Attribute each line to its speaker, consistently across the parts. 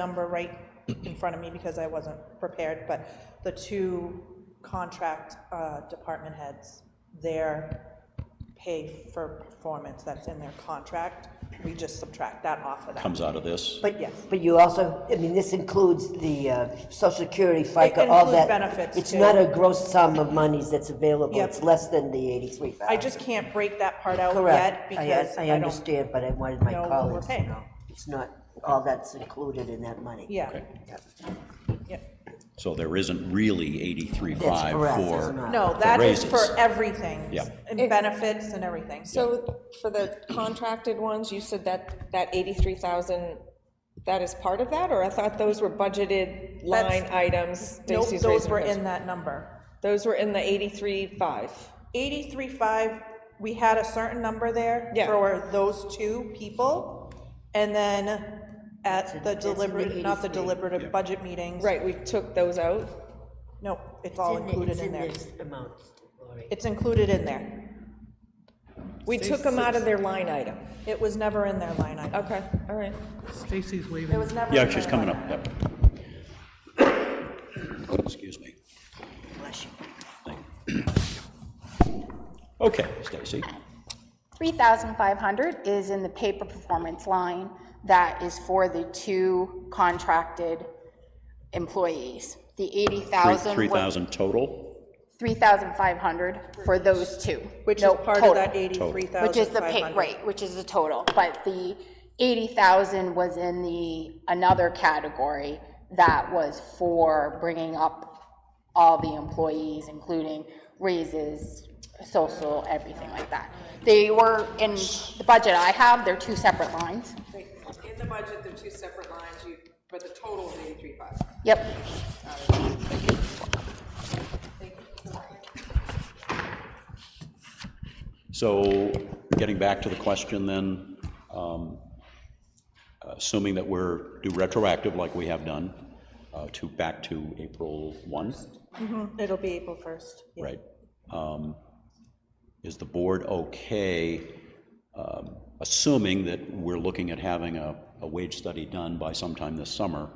Speaker 1: number right in front of me because I wasn't prepared, but the two contract uh, department heads, their pay for performance that's in their contract, we just subtract that off of that.
Speaker 2: comes out of this.
Speaker 3: But,
Speaker 1: Yes.
Speaker 3: but you also, I mean, this includes the uh, Social Security, FICA, all
Speaker 1: includes
Speaker 3: that.
Speaker 1: benefits,
Speaker 3: It's
Speaker 1: too.
Speaker 3: not a gross sum of monies that's available.
Speaker 1: Yep.
Speaker 3: It's less than the eighty-three
Speaker 1: I
Speaker 3: thousand.
Speaker 1: just can't break that part out yet
Speaker 3: Correct. I-
Speaker 1: because
Speaker 3: I
Speaker 1: I don't,
Speaker 3: understand, but I wanted my
Speaker 1: know what we're
Speaker 3: colleagues to
Speaker 1: paying.
Speaker 3: know. It's not all that's included in that money.
Speaker 1: yeah,
Speaker 3: Yeah.
Speaker 1: yeah.
Speaker 2: So there isn't really
Speaker 3: That's
Speaker 2: 83.5
Speaker 3: correct,
Speaker 2: for.
Speaker 3: it's not.
Speaker 1: No,
Speaker 2: For
Speaker 1: that is
Speaker 2: raises.
Speaker 1: for everything.
Speaker 2: Yeah.
Speaker 1: And benefits and everything.
Speaker 4: So for the contracted ones, you said that, that 83,000, that is part of that? Or I thought those were budgeted line
Speaker 1: That's-
Speaker 4: items?
Speaker 1: Nope,
Speaker 4: Stacy's
Speaker 1: those
Speaker 4: raising
Speaker 1: were
Speaker 4: her hand.
Speaker 1: in that number.
Speaker 4: Those were in the 83.5?
Speaker 1: 83.5, we had a certain number there
Speaker 4: Yeah.
Speaker 1: for those two people. And then at the deliberative, not the deliberative budget meetings.
Speaker 4: Right, we took those out?
Speaker 1: Nope, it's all included in there.
Speaker 3: amounts, Lori.
Speaker 1: It's included in there.
Speaker 4: We took them out of their line item.
Speaker 1: It was never in their line item.
Speaker 4: Okay, all right.
Speaker 5: Stacy's
Speaker 1: It
Speaker 5: waving.
Speaker 1: was never.
Speaker 2: Yeah,
Speaker 1: in
Speaker 2: she's
Speaker 1: their
Speaker 2: coming
Speaker 1: line
Speaker 2: up, yep. Excuse me. Thank you. Okay, Stacy,
Speaker 6: 3,500 is in the paper performance line that is for the two contracted employees. The
Speaker 2: Three-
Speaker 6: 80,000 was
Speaker 2: 3,000 total?
Speaker 6: 3,500 for those two.
Speaker 1: item, Which is
Speaker 6: No,
Speaker 1: part
Speaker 6: total,
Speaker 1: of that 83,500.
Speaker 6: Which is the pay, right, which is the total, but the 80,000 was in the, another category that was for bringing up all the employees, including raises, social, everything like that. They were in the budget I have, they're two separate lines.
Speaker 7: In the budget, they're two separate lines, you, but the total is eighty-three five.
Speaker 6: Yep,
Speaker 2: So getting back to the question then, um, assuming that we're, do retroactive like we have done, uh, to, back to April 1?
Speaker 1: It'll be April 1st. yeah.
Speaker 2: right? Um, Is the board okay, um, assuming that we're looking at having a, a wage study done by sometime this summer?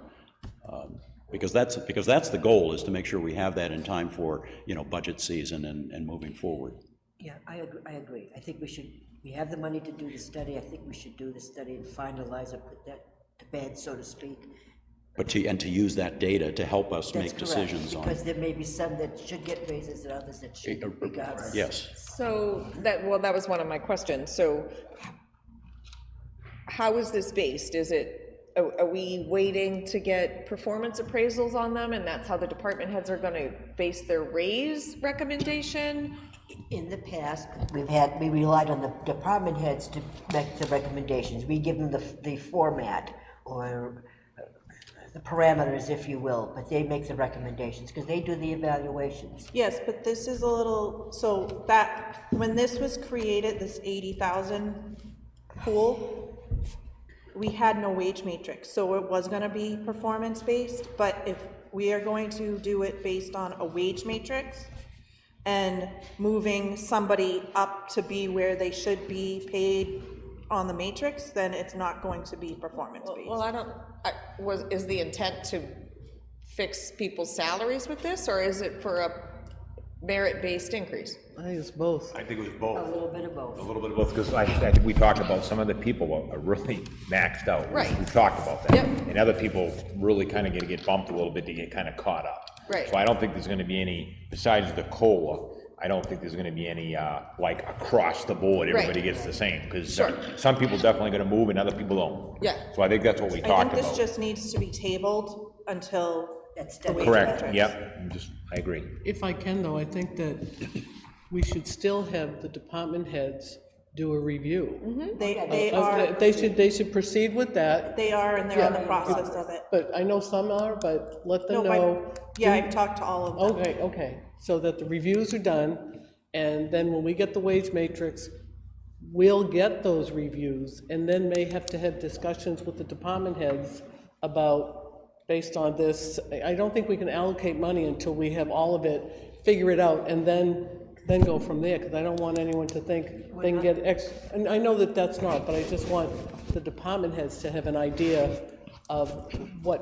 Speaker 2: um, Because that's, because that's the goal, is to make sure we have that in time for, you know, budget season and, and moving forward.
Speaker 3: Yeah, I agree, I agree. I think we should, we have the money to do the study. I think we should do the study and finalize it, put that to bed, so to speak.
Speaker 2: But to, and to use that data to help us
Speaker 3: That's
Speaker 2: make
Speaker 3: correct,
Speaker 2: decisions on.
Speaker 3: Because there may be some that should get raises and others that shouldn't, regardless.
Speaker 2: Yes,
Speaker 4: So that, well, that was one of my questions. So how is this based? Is it, are are we waiting to get performance appraisals on them? And that's how the department heads are going to base their raise recommendation?
Speaker 3: In the past, we've had, we relied on the department heads to make the recommendations. We give them the, the format or the parameters, if you will, but they make the recommendations because they do the evaluations.
Speaker 1: Yes, but this is a little, so that, when this was created, this eighty thousand pool, we had no wage matrix, so it was gonna be performance-based, but if we are going to do it based on a wage matrix and moving somebody up to be where they should be paid on the matrix, then it's not going to be
Speaker 4: Well,
Speaker 1: performance-based.
Speaker 4: I don't, I, was, is the intent to fix people's salaries with this, or is it for a merit-based increase?
Speaker 5: I think it's both.
Speaker 8: I think it was both,
Speaker 3: A little bit of both.
Speaker 8: a little bit of both, because I, I think we talked about some of the people are- are really maxed out. We-
Speaker 4: Right.
Speaker 8: We talked about that.
Speaker 4: Yep.
Speaker 8: And other people really kind of gonna get bumped a little bit to get kind of caught up.
Speaker 4: Right.
Speaker 8: So I don't think there's gonna be any, besides the COLA, I don't think there's gonna be any, uh, like, across the board, everybody gets the same, because
Speaker 4: Sure.
Speaker 8: some people definitely gonna move and other people don't.
Speaker 4: Yeah.
Speaker 8: So I think that's what we
Speaker 1: I
Speaker 8: talked
Speaker 1: think this
Speaker 8: about.
Speaker 1: just needs to be tabled until
Speaker 3: That's
Speaker 1: the wage matrix.
Speaker 8: Correct, yep, I'm just, I agree.
Speaker 5: If I can, though, I think that we should still have the department heads do a review.
Speaker 1: They, Mm-hmm. they
Speaker 5: Of
Speaker 1: are.
Speaker 5: the- They should, they should proceed with that,
Speaker 1: They are, and they're on the process of it.
Speaker 5: but I know some are, but let
Speaker 1: No,
Speaker 5: them know.
Speaker 1: but, yeah, I've talked to all of them.
Speaker 5: Oh, Okay, okay, so that the reviews are done, and then when we get the wage matrix, we'll get those reviews, and then may have to have discussions with the department heads about, based on this, I I don't think we can allocate money until we have all of it, figure it out, and then, then go from there, because I don't want anyone to think they can get X, and I know that that's not, but I just want the department heads to have an idea of what